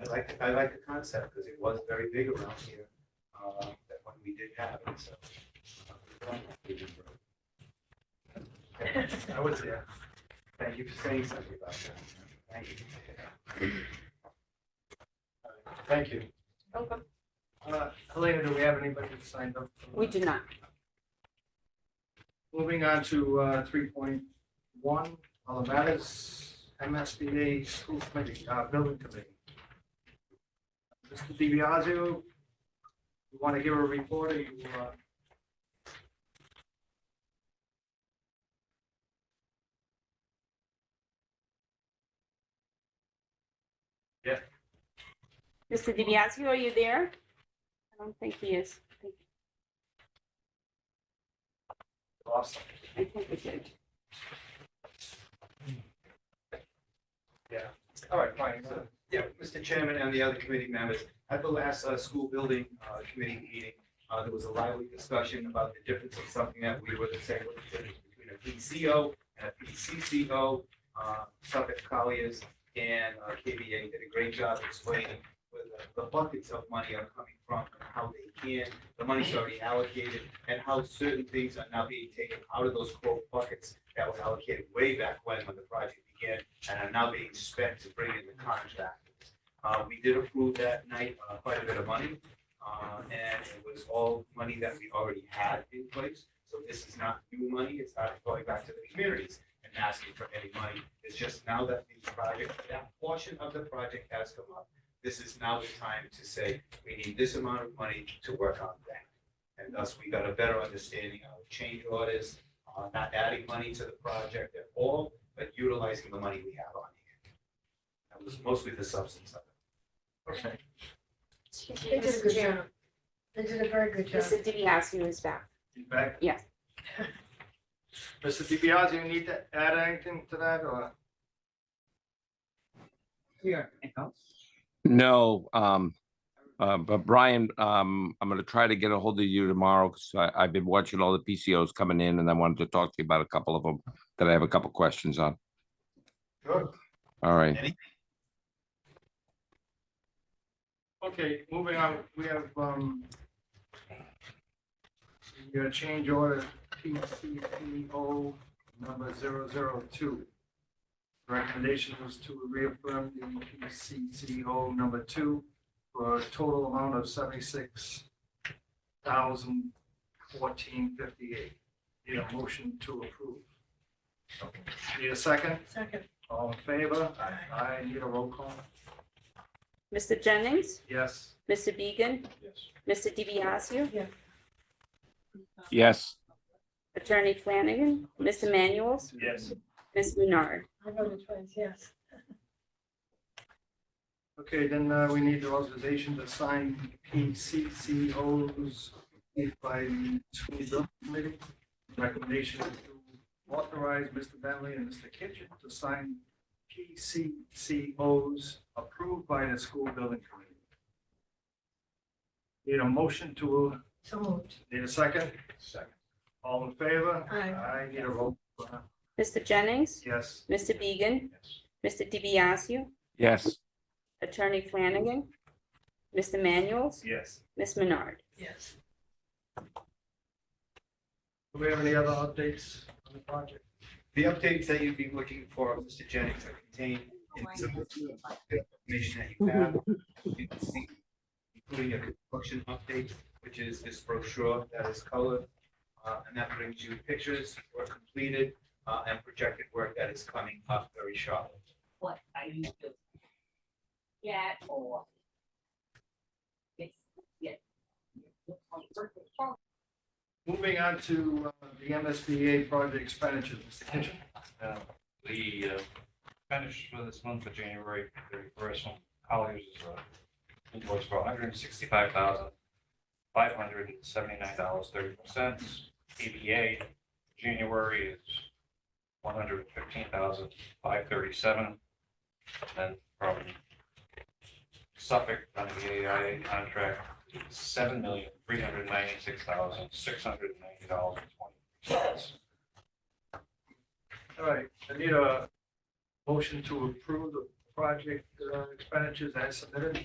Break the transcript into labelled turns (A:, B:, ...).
A: I like, I like the concept because it was very big around here, uh, that when we did have it, so. uh, I was there. Thank you for saying something about that. Thank you.
B: Thank you.
C: Okay.
B: Uh, Helena, do we have anybody who signed up?
C: We do not.
B: Moving on to uh, three point one, all the matters, MSBA school committee, uh, building committee. Mr. DiBiaseu, you want to give a report or you? uh,
C: Mr. DiBiaseu, are you there? I don't think he is. I think-
B: lost?
C: I think we did.
B: All right, fine. so-
A: Yeah, Mr. Chairman and the other committee members, at the last uh, school building uh, committee meeting, uh, there was a lively discussion about the difference of something that we were the same with the difference between a PCO and a PCCO. Uh, Suffolk Colliers and uh, KBA did a great job explaining where the- the buckets of money are coming from and how they can, the money's already allocated, and how certain things are now being taken out of those quote buckets that were allocated way back when, when the project began and are now being spent to bring in the contractors. Uh, we did approve that night uh, quite a bit of money, uh, and it was all money that we already had in place. So this is not new money, it's not going back to the communities and asking for any money. It's just now that the project, that portion of the project has come up, this is now the time to say, we need this amount of money to work on that. And thus, we got a better understanding of change orders, uh, not adding money to the project at all, but utilizing the money we have on hand. That was mostly the substance of it.
B: Okay.
D: They did a good
C: Mr.
D: job. They did a very good job.
C: DiBiaseu is back.
B: You back?
C: Yes.
B: Mr. DiBiase, you need to add anything to that or?
E: No, um, uh, but Brian, um, I'm gonna try to get a hold of you tomorrow, because I, I've been watching all the PCOs coming in, and I wanted to talk to you about a couple of them that I have a couple questions on.
B: Sure.
E: All right.
B: Okay, moving on, we have, um, your change order PCPO number zero zero two. Recommendation was to reaffirm the PCCO number two for a total amount of seventy-six thousand fourteen fifty-eight. Need a motion to approve. Need a second?
D: Second.
B: All in favor? Aye. I need a roll call?
C: Mr. Jennings,
B: Yes.
C: Mr. Beegan,
B: Yes.
C: Mr. DiBiaseu,
E: Yes,
C: Attorney Flanagan, Mr. Manuel's,
B: Yes.
C: Ms. Menard.
D: I voted twice, yes.
B: Okay, then uh, we need the authorization to sign PCCOs made by the school building committee. Recommendation is to authorize Mr. Bentley and Mr. Kitchen to sign PCCOs approved by the school building committee. Need a motion to,
D: So moved.
B: need a second? Second. All in favor?
D: Aye.
B: I need a roll. uh,
C: Mr. Jennings,
B: Yes.
C: Mr. Beegan, Mr. DiBiaseu,
E: yes,
C: Attorney Flanagan, Mr. Manuel's,
B: Yes.
C: Ms. Menard.
D: Yes.
B: Do we have any other updates on the project?
A: The updates that you'd be looking for, Mr. Jennings, are contained in the information that you have. You can see, Including a construction update, which is this brochure that is colored, uh, and that brings you pictures, work completed, uh, and projected work that is coming up very shortly.
F: what I used to get or it's, yeah.
B: Moving on to uh, the MSBA project expenditures, Mr. Kitchen.
G: Uh, The uh, finish for this month of January, the first one, Colliers is uh, invoice for hundred and sixty-five thousand, five hundred and seventy-nine dollars, thirty-four cents. ABA, January is one hundred and fifteen thousand, five thirty-seven. Then from Suffolk, on the AIA contract, seven million, three hundred ninety-six thousand, six hundred ninety dollars and twenty cents.
B: All right, I need a motion to approve the project uh, expenditures as submitted.